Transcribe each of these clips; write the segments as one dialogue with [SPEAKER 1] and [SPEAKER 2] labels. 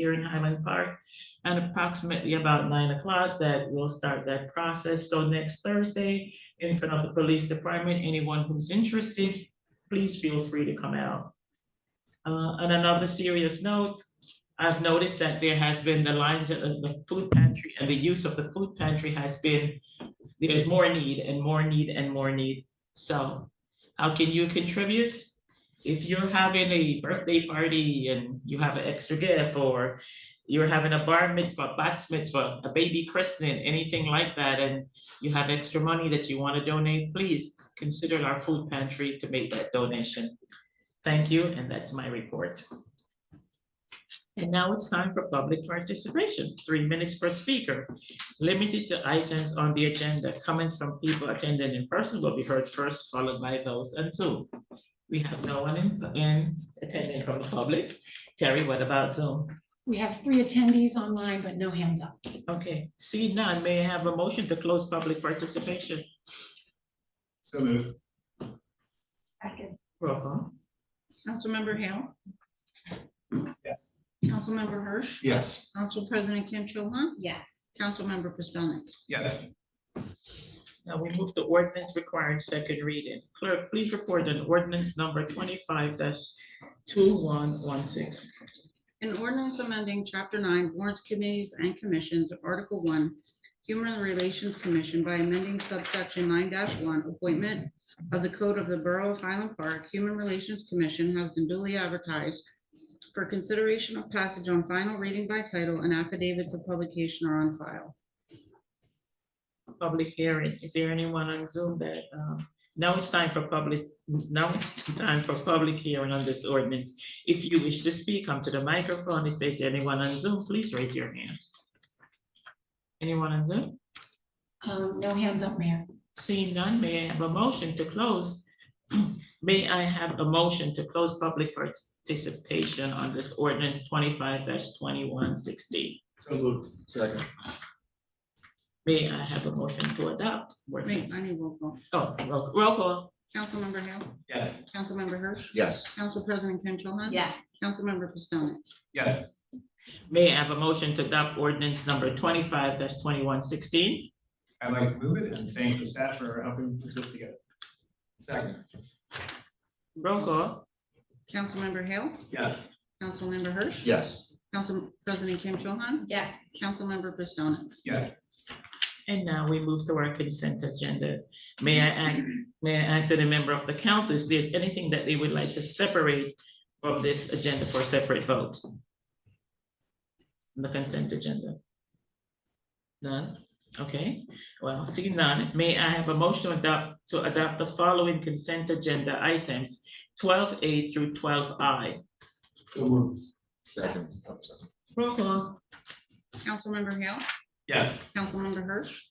[SPEAKER 1] here in Highland Park. And approximately about nine o'clock that we'll start that process. So next Thursday, in front of the police department, anyone who's interested, please feel free to come out. Uh, on another serious note, I've noticed that there has been the lines at the- the food pantry and the use of the food pantry has been, there's more need and more need and more need. So how can you contribute? If you're having a birthday party and you have an extra gift or you're having a bar mitzvah, bat mitzvah, a baby christening, anything like that, and you have extra money that you want to donate, please consider our food pantry to make that donation. Thank you, and that's my report. And now it's time for public participation, three minutes per speaker, limited to items on the agenda. Comments from people attending in person will be heard first, followed by those on Zoom. We have no one in, in attending from the public. Terry, what about Zoom?
[SPEAKER 2] We have three attendees online, but no hands up.
[SPEAKER 1] Okay, see none, may I have a motion to close public participation?
[SPEAKER 3] So moved.
[SPEAKER 2] Second.
[SPEAKER 1] Roll call.
[SPEAKER 4] Councilmember Hale,
[SPEAKER 3] Yes.
[SPEAKER 4] Councilmember Hirsch,
[SPEAKER 3] Yes.
[SPEAKER 4] Council President Kim Cho Han,
[SPEAKER 2] Yes.
[SPEAKER 4] Councilmember Pistonik.
[SPEAKER 3] Yes.
[SPEAKER 1] Now we move to ordinance requiring second reading. Clerk, please report on ordinance number twenty-five two one one six.
[SPEAKER 4] An ordinance amending Chapter 9 Warrants Committees and Commissions, Article 1, Human Relations Commission by amending subsection 9-1, Appointment of the Code of the Borough of Highland Park. Human Relations Commission has been duly advertised for consideration of passage on final reading by title and affidavits of publication are on file.
[SPEAKER 1] Public hearing, is there anyone on Zoom that, um, now it's time for public, now it's time for public hearing on this ordinance. If you wish to speak, come to the microphone. If there's anyone on Zoom, please raise your hand. Anyone on Zoom?
[SPEAKER 2] Um, no hands up, Mayor.
[SPEAKER 1] Seeing none, may I have a motion to close? May I have a motion to close public participation on this ordinance twenty-five twenty-one sixteen?
[SPEAKER 3] So moved. Second.
[SPEAKER 1] May I have a motion to adopt
[SPEAKER 4] Wait,
[SPEAKER 1] ordinance?
[SPEAKER 4] I need roll call.
[SPEAKER 1] Oh, roll roll call,
[SPEAKER 4] Councilmember Hale,
[SPEAKER 3] Yes.
[SPEAKER 4] Councilmember Hirsch,
[SPEAKER 3] Yes.
[SPEAKER 4] Council President Kim Cho Han.
[SPEAKER 2] Yes.
[SPEAKER 4] Councilmember Pistonik.
[SPEAKER 3] Yes.
[SPEAKER 1] may I have a motion to adopt ordinance number twenty-five twenty-one sixteen?
[SPEAKER 3] I'd like to move it and thank the staff for helping put this together. Second.
[SPEAKER 1] Roll call,
[SPEAKER 4] Councilmember Hale,
[SPEAKER 3] Yes.
[SPEAKER 4] Councilmember Hirsch.
[SPEAKER 3] Yes.
[SPEAKER 4] Council President Kim Cho Han,
[SPEAKER 2] Yes.
[SPEAKER 4] Councilmember Pistonik.
[SPEAKER 3] Yes.
[SPEAKER 1] and now we move to our consent agenda. May I ask, may I ask any member of the council if there's anything that they would like to separate from this agenda for a separate vote? The consent agenda? None? Okay, well, seeing none, may I have a motion to adopt, to adopt the following consent agenda items, twelve A through twelve I?
[SPEAKER 3] So moved. Second.
[SPEAKER 5] oh,
[SPEAKER 1] Roll call.
[SPEAKER 4] Councilmember Hale,
[SPEAKER 3] Yes.
[SPEAKER 4] Councilmember Hirsch,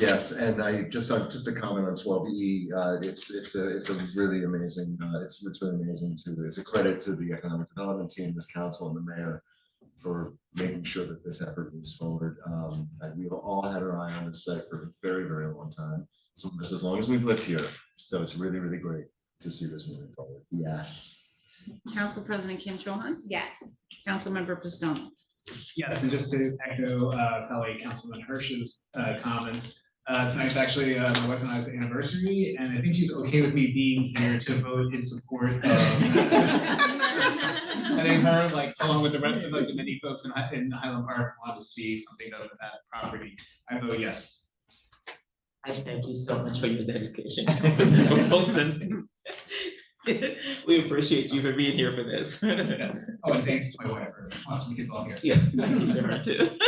[SPEAKER 5] Yes, and I just, uh, just a comment on twelve E, uh, it's, it's a, it's a really amazing, uh, it's, it's really amazing to, it's a credit to the economic development team, this council and the mayor for making sure that this effort moves forward. Um, and we've all had our eye on this site for a very, very long time, so this as long as we've lived here. So it's really, really great to see this moving forward. Yes.
[SPEAKER 4] Council President Kim Cho Han,
[SPEAKER 2] Yes.
[SPEAKER 4] Councilmember Pistonik.
[SPEAKER 3] Yes, and just to echo uh, fellow Councilman Hirsch's uh, comments, uh, tonight's actually uh, my wife and I's anniversary, and I think she's okay with me being here to vote in support of this. I think her, like, along with the rest of us and many folks in Hi- in Highland Park, want to see something done with that property. I vote yes.
[SPEAKER 1] I thank you so much for your dedication. For both of them. We appreciate you for being here for this.
[SPEAKER 3] Yes. Oh, and thanks to my wife for watching the kids all here.
[SPEAKER 1] Yes, thank you, Tara, too.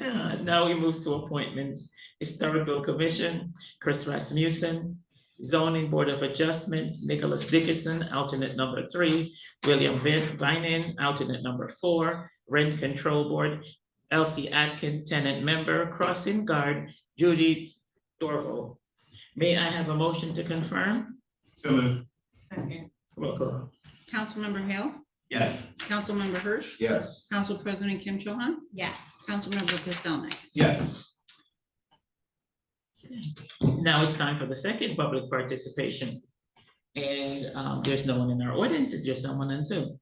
[SPEAKER 1] Uh, Now we move to appointments, Historical Commission, Chris Rasmussen, Zoning Board of Adjustment, Nicholas Dickerson, alternate number three, William Vin- Vining, alternate number four, Rent Control Board, Elsie Atkin, tenant member, Crossing Guard, Judy Dorval. May I have a motion to confirm?
[SPEAKER 3] So moved.
[SPEAKER 2] Second.
[SPEAKER 1] Roll call.
[SPEAKER 4] Councilmember Hale,
[SPEAKER 3] Yes.
[SPEAKER 4] Councilmember Hirsch,
[SPEAKER 5] Yes.
[SPEAKER 4] Council President Kim Cho Han,
[SPEAKER 2] Yes.
[SPEAKER 4] Councilmember Pistonik.
[SPEAKER 3] Yes.
[SPEAKER 1] Now it's time for the second public participation. And um, there's no one in our audience. Is there someone on Zoom?